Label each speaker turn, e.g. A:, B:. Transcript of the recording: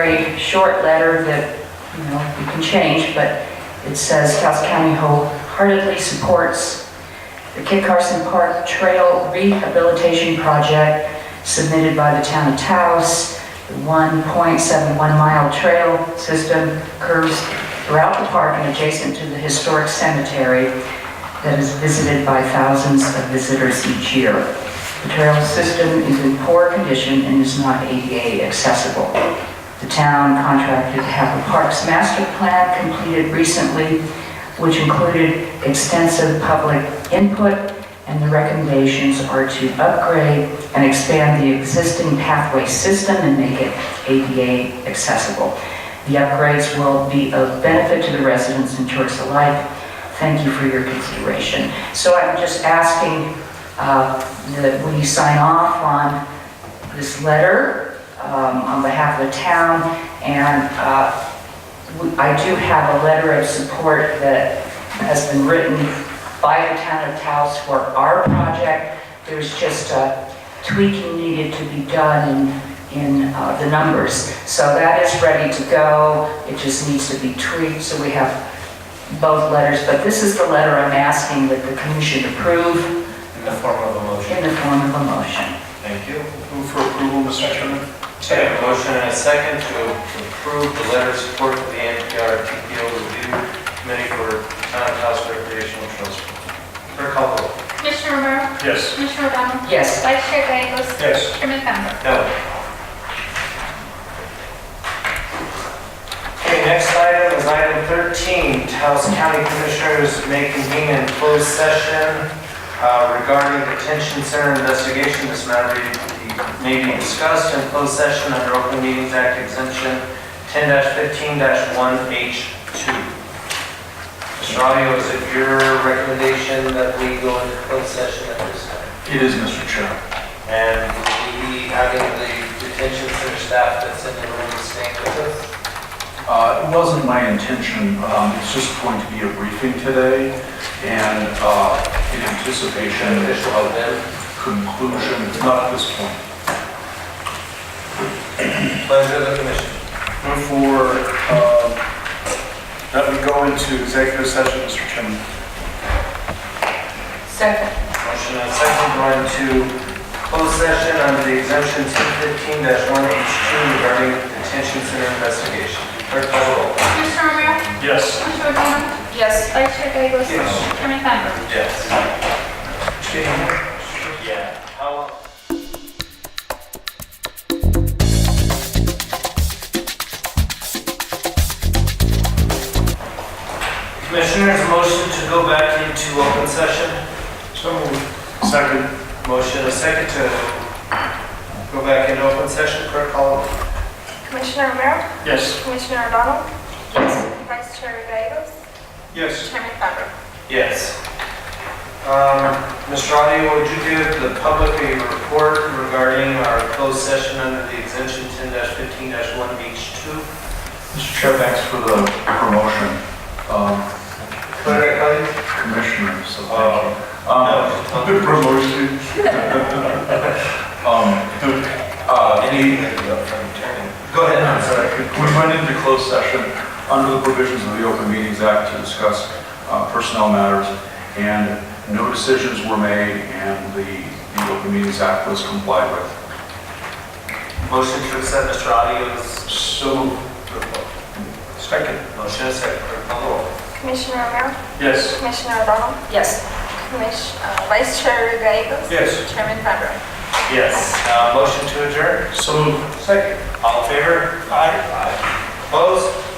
A: very short letter that, you know, you can change, but it says Taos County wholeheartedly supports the Kit Carson Park Trail Rehabilitation Project submitted by the town of Taos. The 1.71 mile trail system curves throughout the park and adjacent to the historic cemetery that is visited by thousands of visitors each year. The trail system is in poor condition and is not ADA accessible. The town contracted to have the park's master plan completed recently, which included extensive public input, and the recommendations are to upgrade and expand the existing pathway system and make it ADA accessible. The upgrades will be of benefit to the residents and tourists alike. Thank you for your consideration. So I'm just asking uh, that we sign off on this letter um, on behalf of the town, and uh, we- I do have a letter of support that has been written by the town of Taos for our project. There's just a tweaking needed to be done in, in uh, the numbers. So that is ready to go, it just needs to be tweaked, so we have both letters. But this is the letter I'm asking that the commission approve
B: In the form of a motion.
A: in the form of a motion.
B: Thank you.
C: Move for approval, Mr. Chairman.
B: Okay, a motion and a second to approve the letter of support for the NPR TPO review committee for town and house recreational trails. Clerk call the roll.
D: Commissioner Romero?
C: Yes.
D: Commissioner O'Donnell?
A: Yes,
D: Vice Chair Gagos?
C: Yes.
D: Chairman Bender?
B: No. Okay, next item is item 13. Taos County Commissioners may convene in closed session uh, regarding detention center investigation. This matter may be- may be discussed in closed session under Open Meetings Act exemption 10-15-1H2. Mr. Audio, is it your recommendation that we go into closed session at this time?
C: It is, Mr. Chairman.
B: And will we be having the detention center staff that's in the room staying with us?
C: Uh, It wasn't my intention, Um, it's just going to be a briefing today, and uh, in anticipation
B: Official of
C: of
B: them?
C: conclusion, not at this point.
B: Pleasure of the commission.
C: Move for, um, that we go into executive session, Mr. Chairman.
A: second.
B: Motion and second, going to closed session under the exemption 1015-1H2 regarding detention center investigation. Clerk call the roll.
D: Commissioner Romero?
C: Yes.
D: Commissioner O'Donnell?
A: Yes.
D: Vice Chair Gagos?
B: Yes.
D: Chairman Bender?
B: Yes. Yeah. How? Commissioners, motion to go back into open session.
C: So Second.
B: Motion a second to go back into open session. Clerk call.
E: Commissioner Romero?
C: Yes.
E: Commissioner O'Donnell? Yes. Vice Chair Gagos?
C: Yes.
E: Chairman Bender?
B: Yes. Um, Mr. Audio, would you give the public a report regarding our closed session under the exemption ten fifteen one H two?
C: Mr. Chair, thanks for the promotion, um,
B: Clerk, please.
C: Commissioner, so thank
B: Oh.
C: you. Um,
B: No.
C: The promotion. Um, the, uh,
B: Any,
C: the,
B: go ahead,
C: I'm
B: I'm sorry.
C: sorry, we went into closed session under the provisions of the Open Meetings Act to discuss uh, personnel matters, and no decisions were made, and the, the Open Meetings Act was complied with.
B: Motion to accept Mr. Audio's
C: So,
B: report.
C: second.
B: Motion a second, clerk call the roll.
E: Commissioner Romero?
C: Yes.
E: Commissioner O'Donnell?
A: Yes.
E: Commiss- uh, Vice Chair Gagos?
C: Yes.
E: Chairman Bender?
B: Yes. Uh, motion to adjourn?
C: So.
B: Second. All in favor? Aye. Opposed?